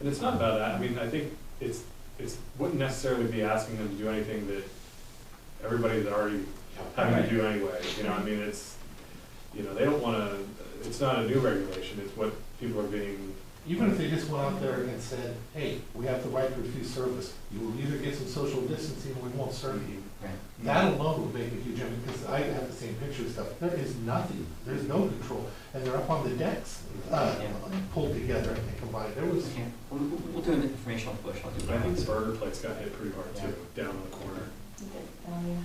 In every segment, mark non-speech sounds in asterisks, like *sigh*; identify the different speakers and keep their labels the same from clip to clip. Speaker 1: And it's not about that, I mean, I think it's, it's, wouldn't necessarily be asking them to do anything that everybody's already having to do anyway, you know, I mean, it's, you know, they don't wanna, it's not a new regulation, it's what people are being,
Speaker 2: Even if they just went out there and said, hey, we have the right to refuse service, you will either get some social distancing or we won't serve you.
Speaker 3: Mm-hmm.
Speaker 2: That alone would make a huge, difference because I have the same picture and stuff, there is nothing, there's no control, and they're up on the decks, uh,
Speaker 3: Yeah.
Speaker 2: pulled together and they combined, there was,
Speaker 3: Yeah, we'll, we'll we'll do an informational push, I'll do
Speaker 1: I
Speaker 3: that.
Speaker 1: think Burger Place got hit pretty hard too, down on the corner.
Speaker 4: Um,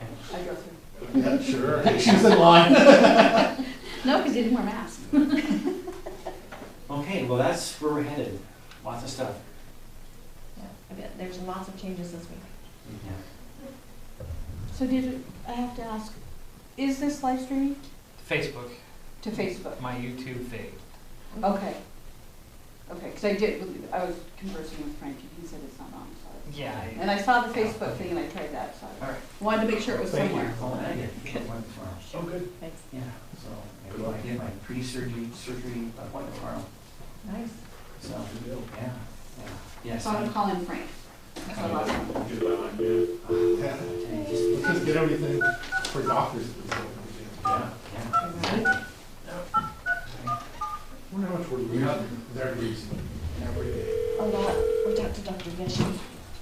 Speaker 3: Okay.
Speaker 4: I drove through.
Speaker 2: yeah, sure, she was in line.
Speaker 4: No, because you didn't wear masks.
Speaker 3: Okay, well, that's where we're headed, lots of stuff.
Speaker 4: Yeah, I bet there's lots of changes this week.
Speaker 3: Yeah.
Speaker 4: So did, I have to ask, is this live streaming
Speaker 5: Facebook,
Speaker 4: to Facebook?
Speaker 5: my YouTube feed.
Speaker 4: Okay. Okay, because I did, I was conversing with Frank and he said it's not on, so.
Speaker 5: Yeah. I-
Speaker 4: And I saw the Facebook thing and I tried that, so
Speaker 3: All right.
Speaker 4: I wanted to make sure it was
Speaker 3: Thank you.
Speaker 4: somewhere.
Speaker 3: Oh, I did. One tomorrow.
Speaker 1: Oh, good.
Speaker 4: Thanks.
Speaker 3: Yeah, so maybe I'll get my pre-surgery, surgery appointment tomorrow,
Speaker 4: Nice.
Speaker 3: so, yeah, yeah. Yes.
Speaker 4: So I'm calling Frank. That's the last one.
Speaker 1: Good line, yeah.
Speaker 2: Yeah,
Speaker 3: Okay, just-
Speaker 2: Let's just get everything for doctors.
Speaker 3: Yeah, yeah.
Speaker 2: Wonder how much we're losing, they're losing every day.
Speaker 6: a lot, we talked to Dr. Geshe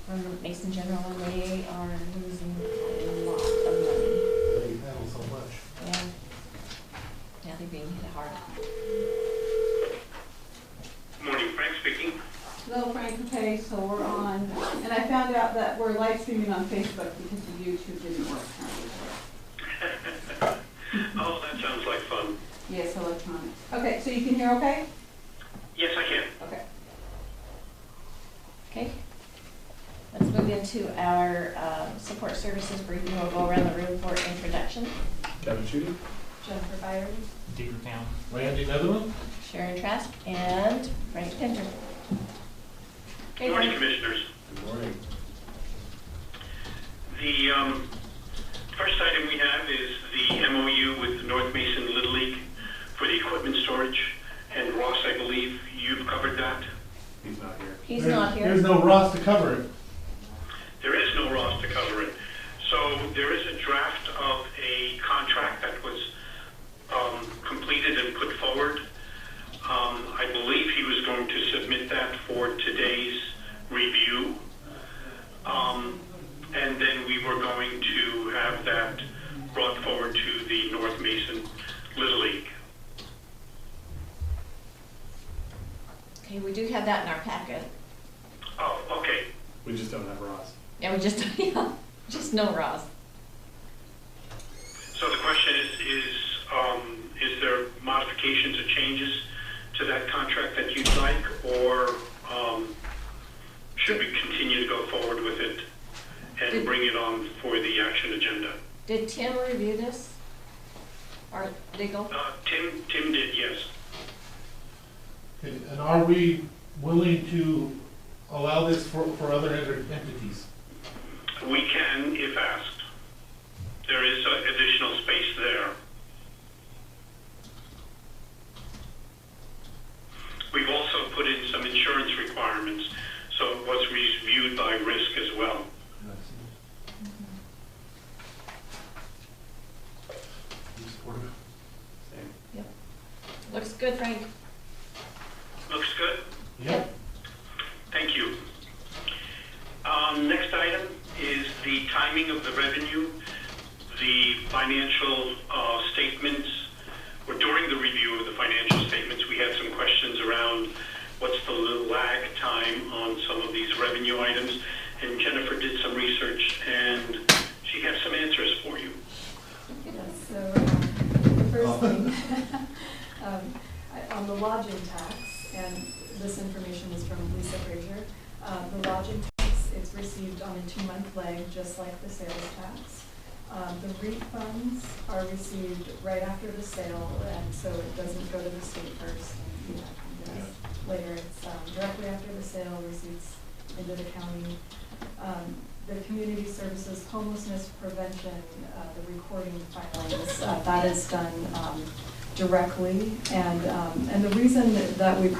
Speaker 6: from Mason General, and they are losing a lot of money.
Speaker 2: They handle so much.
Speaker 6: Yeah. Yeah, they're being hit hard.
Speaker 7: Morning, Frank speaking.
Speaker 4: Hello, Frank. Okay, so we're on, and I found out that we're live streaming on Facebook because the YouTube didn't work.
Speaker 7: *laughs* Oh, that sounds like fun.
Speaker 4: Yes, electronic. Okay, so you can hear okay?
Speaker 7: Yes, I can.
Speaker 4: Okay.
Speaker 6: Okay? Let's move into our um, support services briefing. We'll go around the room for introduction.
Speaker 1: Kevin Chudy?
Speaker 6: Jennifer Byron,
Speaker 5: Deeper down.
Speaker 2: Randy Netherland?
Speaker 6: Sharon Trask, and Frank Pinter. Okay,
Speaker 7: Morning,
Speaker 6: Frank.
Speaker 7: Commissioners.
Speaker 1: Good morning.
Speaker 7: The um, first item we have is the MOU with the North Mason Little League for the equipment storage. And Ross, I believe you've covered that.
Speaker 1: He's not here.
Speaker 6: He's not
Speaker 2: There's
Speaker 6: here.
Speaker 2: no Ross to cover it.
Speaker 7: There is no Ross to cover it. So there is a draft of a contract that was um, completed and put forward. Um, I believe he was going to submit that for today's review. Um, and then we were going to have that brought forward to the North Mason Little League.
Speaker 6: Okay, we do have that in our packet.
Speaker 7: Oh, okay.
Speaker 1: We just don't have Ross.
Speaker 6: Yeah, we just, *laughs* yeah, just no Ross.
Speaker 7: So the question is, is, um, is there modifications or changes to that contract that you'd like, or, um, should we continue to go forward with it and bring it on for the action agenda?
Speaker 6: Did Tim review this? Or legal?
Speaker 7: Uh, Tim, Tim did, yes.
Speaker 2: Okay, And are we willing to allow this for, for other enter- entities?
Speaker 7: We can, if asked. There is uh, additional space there. We've also put in some insurance requirements, so it was reviewed by risk as well.
Speaker 6: Looks good, Frank.
Speaker 7: Looks good.
Speaker 2: Yep.
Speaker 7: Thank you. Um, Next item is the timing of the revenue. The financial uh, statements, or during the review of the financial statements, we had some questions around what's the lag time on some of these revenue items. And Jennifer did some research, and she has some answers for you.
Speaker 8: So, um, the first thing, um, I- on the lodging tax, and this information is from Lisa Frazier, uh, the lodging tax is received on a two-month lag, just like the sales tax. Um, The refunds are received right after the sale, and so it doesn't go to the state first, and you have to later. It's um, directly after the sale, receipts into the county. Um, The community services homelessness prevention, uh, the recording filings, uh, that is done um, directly. And, um, and the reason that we